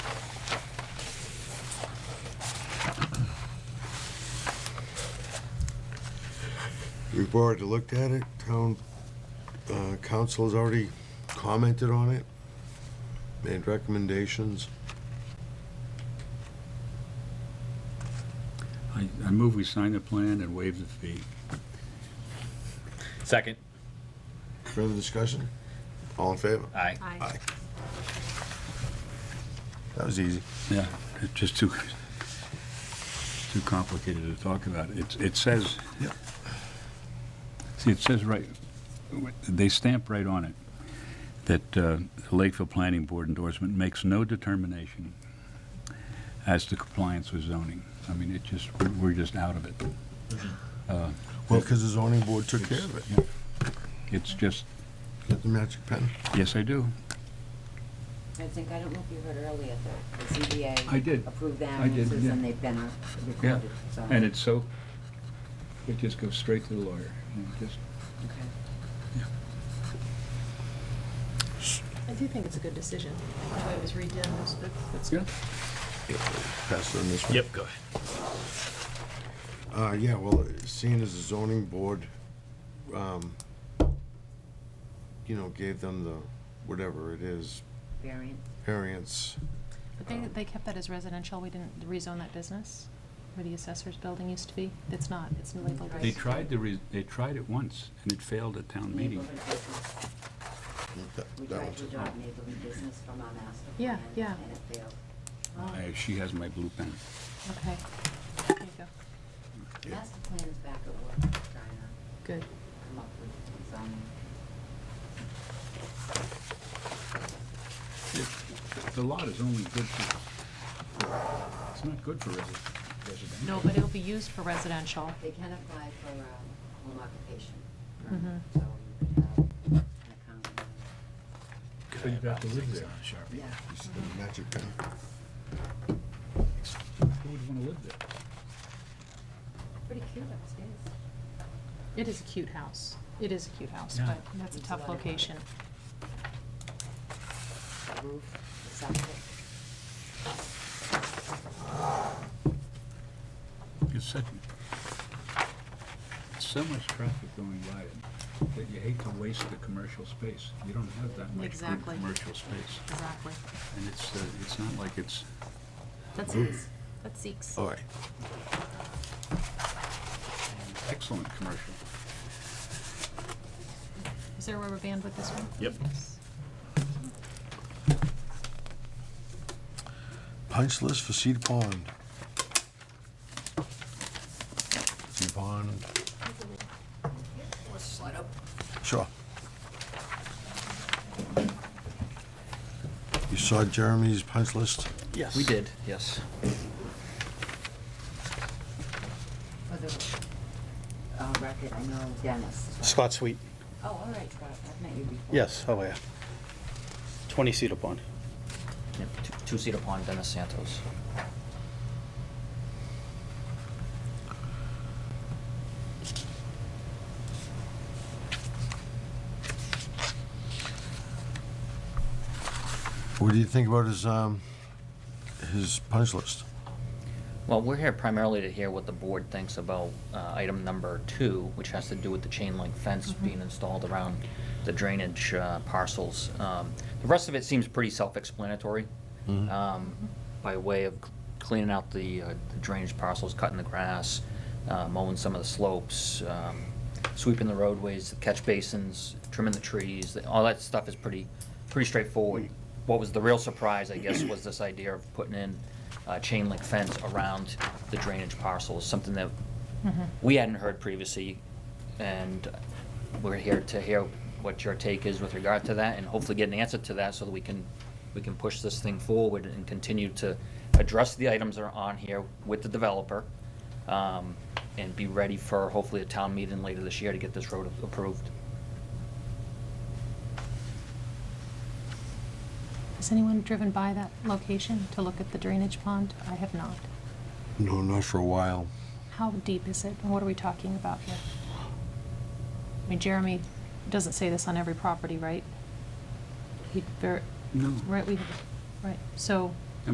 We've already looked at it, town, uh, council has already commented on it, made recommendations. I, I move we sign the plan and waive the fee. Second. Further discussion? All in favor? Aye. Aye. That was easy. Yeah. It's just too, too complicated to talk about. It, it says, Yeah. see, it says right, they stamp right on it, that uh, the Lakeville Planning Board endorsement makes no determination as to compliance with zoning. I mean, it just, we're- we're just out of it. Well, because the zoning board took care of it. It's just, Get the magic pen. yes, I do. I think, I don't know if you heard earlier, the, the ZBA. I did. Approved I did, variances yeah. and they've been Yeah. recorded, so. And it's so, it just goes straight to the lawyer. you know, just- Okay. I do think it's a good decision. That's why it was redone. That's- that's- that's Yeah. Pass it on this one. Yep, go ahead. Uh, yeah, well, seeing as the zoning board, um, you know, gave them the, whatever it is, Variant. variance. But they, they kept that as residential, we didn't rezone that business, where the assessor's building used to be, it's not, it's labeled They as. tried to, re- they tried it once, and it failed at town meeting. Neighborhood business. That We that tried one's to adopt neighborhood business from our master Yeah, plan. yeah. And it failed. Oh, I- She has my blue pen. Okay, there you go, Yeah. Master plan is back at work, trying to good. come up with zoning. It- The lot is only good for, it's not good for resi- residential. No, but it'll be used for residential. They can apply for a home occupation. Mhm. permit, So you could have an account. So you'd have to live there. Yeah. Magic pen. Who would want to live there? Pretty cute upstairs. It is a cute house, it is a cute house, Yeah. but that's a It's a tough lot of work. location. The roof, the septic. It's such, so much traffic going by it that you hate to waste the commercial space. You don't have that much good Exactly. commercial space. Exactly. And it's, uh, it's not like it's, That's Zeke's, that's Zeke's. All right. an excellent commercial. Is there a rubber band with this one? Yep. Yes. Punch list for Cedar Pond. Cedar Pond. Sure. You saw Jeremy's punch list? Yes. We did, yes. For the uh, record, I know Dennis. but- Scott Sweet, Oh, all right, Scott, I've met you before. yes, oh yeah. 20 Cedar Pond. Two-seater pond, Dennis Santos. What do you think about his, um, his punch list? Well, we're here primarily to hear what the board thinks about uh, item number two, which has to do with the chain link fence being installed around the drainage uh, parcels. Um, The rest of it seems pretty self-explanatory, Mhm. um, by way of cleaning out the uh, the drainage parcels, cutting the grass, uh, mowing some of the slopes, um, sweeping the roadways, the catch basins, trimming the trees, all that stuff is pretty, pretty straightforward. What was the real surprise, I guess, was this idea of putting in a chain link fence around the drainage parcels, something that we hadn't heard previously, and we're here to hear what your take is with regard to that, and hopefully get an answer to that so that we can, we can push this thing forward and continue to address the items that are on here with the developer, um, and be ready for hopefully a town meeting later this year to get this road approved. Has anyone driven by that location to look at the drainage pond? I have not. No, not for a while. How deep is it, and what are we talking about here? I mean, Jeremy doesn't say this on every property, right? He, ver- No. right, we, right, so